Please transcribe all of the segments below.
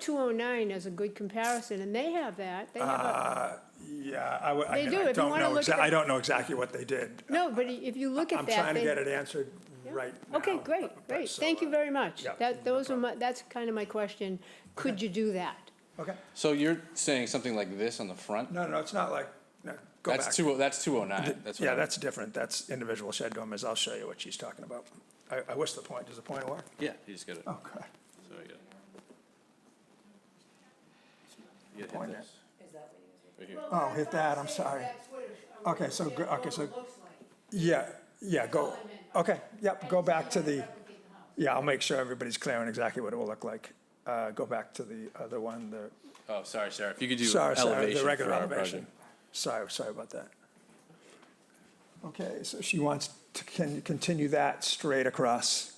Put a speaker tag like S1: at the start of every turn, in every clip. S1: two oh nine as a good comparison, and they have that. They have a,
S2: Ah. Yeah, I would, I
S1: They
S2: mean,
S1: do, if
S2: I
S1: you
S2: don't
S1: wanna
S2: know,
S1: look
S2: exa-
S1: at
S2: I
S1: the-
S2: don't know exactly what they did.
S1: no, but i- if you look at
S2: I'm
S1: that.
S2: trying to
S1: they-
S2: get it answered right now.
S1: Okay, great,
S2: but-
S1: great.
S2: so,
S1: Thank you
S2: uh,
S1: very much.
S2: yeah,
S1: That,
S2: no
S1: those are my, that's kind of my question. Could you do that?
S2: Okay,
S3: So you're saying something like this on the front?
S2: no, no, it's not like, no, go back.
S3: That's two, that's two oh nine, that's what
S2: Yeah,
S3: I-
S2: that's different. That's individual shed dormers. I'll show you what she's talking about. I, I wish the point, does the point work?
S3: Yeah, you just got it.
S2: Oh, God.
S3: So you got it. You gotta
S2: Point
S3: hit
S2: it.
S3: this. Right here.
S2: Oh, hit that, I'm sorry. Okay, so, go- okay, so, yeah, yeah, go, okay, yep, go back to the, yeah, I'll make sure everybody's clear on exactly what it will look like. Uh, go back to the other one, the,
S3: Oh, sorry, Sarah, if you could do
S2: sorry, sorry,
S3: elevation
S2: the
S3: for our
S2: regular elevation.
S3: project.
S2: Sorry, sorry about that. Okay, so she wants to con- continue that straight across.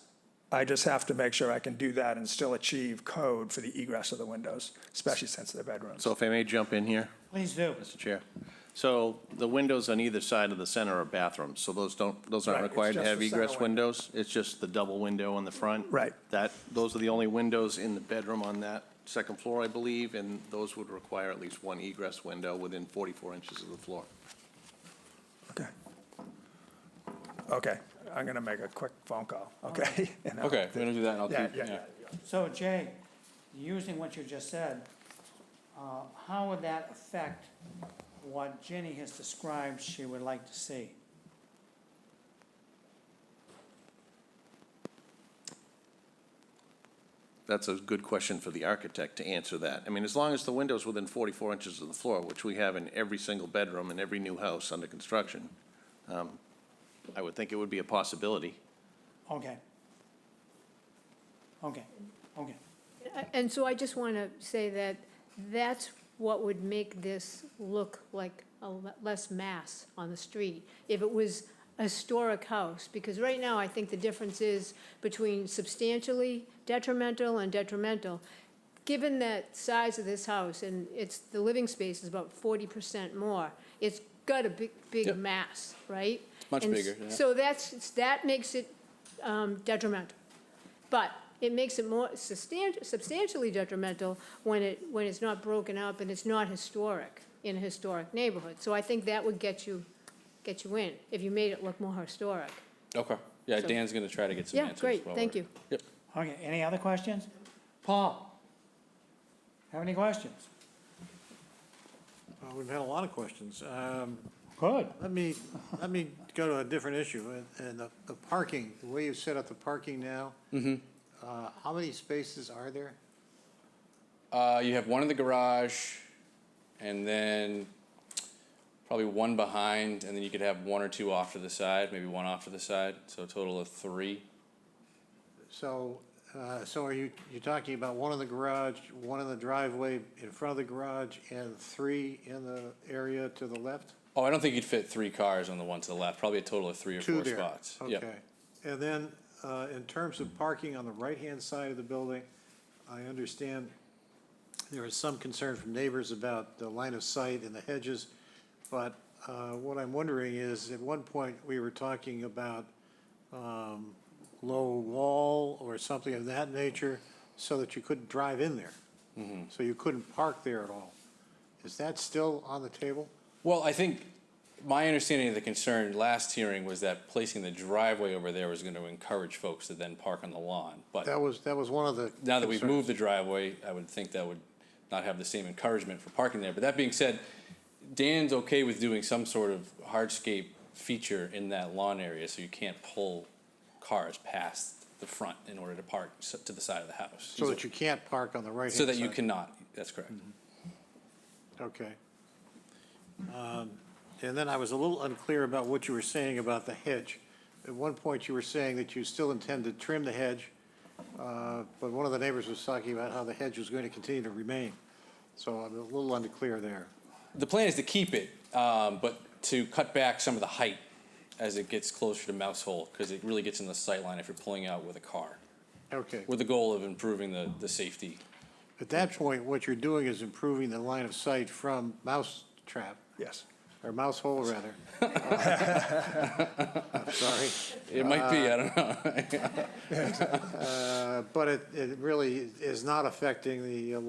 S2: I just have to make sure I can do that and still achieve code for the egress of the windows, especially since they're bedrooms.
S4: So if I may jump in here,
S5: Please do.
S4: Mr. Chair. So the windows on either side of the center are bathrooms, so those don't, those aren't
S2: Right, it's
S4: required to
S2: just
S4: have
S2: the center
S4: egress
S2: window.
S4: windows? It's just the double window on the front?
S2: Right.
S4: That, those are the only windows in the bedroom on that second floor, I believe, and those would require at least one egress window within 44 inches of the floor.
S2: Okay. Okay, I'm gonna make a quick phone call, okay? And I'll-
S3: Okay, we're gonna do that and I'll
S2: Yeah,
S3: keep,
S2: yeah,
S3: yeah.
S2: yeah.
S5: So Jay, using what you just said, uh, how would that affect what Jenny has described she would like to see?
S4: That's a good question for the architect to answer that. I mean, as long as the window's within 44 inches of the floor, which we have in every single bedroom in every new house under construction, um, I would think it would be a possibility.
S5: Okay. Okay, okay.
S1: I- And so I just want to say that that's what would make this look like a le- less mass on the street, if it was a historic house, because right now, I think the difference is between substantially detrimental and detrimental. Given that size of this house, and it's, the living space is about forty percent more, it's got a big, big
S3: Yep.
S1: mass, right?
S3: Much
S1: And
S3: bigger, yeah.
S1: So that's, that makes it um, detrimental. But it makes it more substan- substantially detrimental when it, when it's not broken up and it's not historic, in a historic neighborhood. So I think that would get you, get you in, if you made it look more historic.
S3: Okay, yeah,
S1: So-
S3: Dan's gonna try to get some
S1: Yeah,
S3: answers.
S1: great,
S3: while
S1: thank
S3: we're-
S1: you.
S3: Yep.
S5: Okay, any other questions? Paul? Have any questions?
S6: Well, We've had a lot of questions. Um,
S5: Good.
S6: Let me, let me go to a different issue, and- and the- the parking, the way you set up the parking now. uh, How many spaces are there?
S3: Uh, you have one in the garage and then probably one behind, and then you could have one or two off to the side, maybe one off to the side, so a total of three.
S6: So, uh, so are you, you're talking about one in the garage, one in the driveway in front of the garage, and three in the area to the left?
S3: Oh, I don't think you'd fit three cars on the one to the left, probably a total of three or
S6: Two
S3: four
S6: there.
S3: spots. Yep.
S6: Okay. And then, uh, in terms of parking on the right-hand side of the building, I understand there is some concern from neighbors about the line of sight and the hedges, but uh, what I'm wondering is, at one point, we were talking about um, low wall or something of that nature, so that you couldn't drive in there.
S3: Mm-hmm.
S6: So you couldn't park there at all. Is that still on the table?
S3: Well, I think my understanding of the concern last hearing was that placing the driveway over there was going to encourage folks to then park on the lawn. But
S6: That was, that was one of the
S3: now that we've
S6: concerns.
S3: moved the driveway, I would think that would not have the same encouragement for parking there. But that being said, Dan's okay with doing some sort of hardscape feature in that lawn area so you can't pull cars past the front in order to park s- to the side of the house.
S6: So that you can't park on the right-hand
S3: So
S6: side?
S3: that you cannot, that's correct.
S6: Okay. Um, And then I was a little unclear about what you were saying about the hedge. At one point, you were saying that you still intend to trim the hedge, uh, but one of the neighbors was talking about how the hedge was going to continue to remain. So I'm a little unclear there.
S3: The plan is to keep it, um, but to cut back some of the height as it gets closer to Mouse Hole, because it really gets in the sight line if you're pulling out with a car,
S6: Okay.
S3: with the goal of improving the, the safety.
S6: At that point, what you're doing is improving the line of sight from mouse trap,
S2: Yes.
S6: or mouse hole, rather. I'm sorry.
S3: It might be, I don't know.
S6: Uh, But it, it really is not affecting the uh,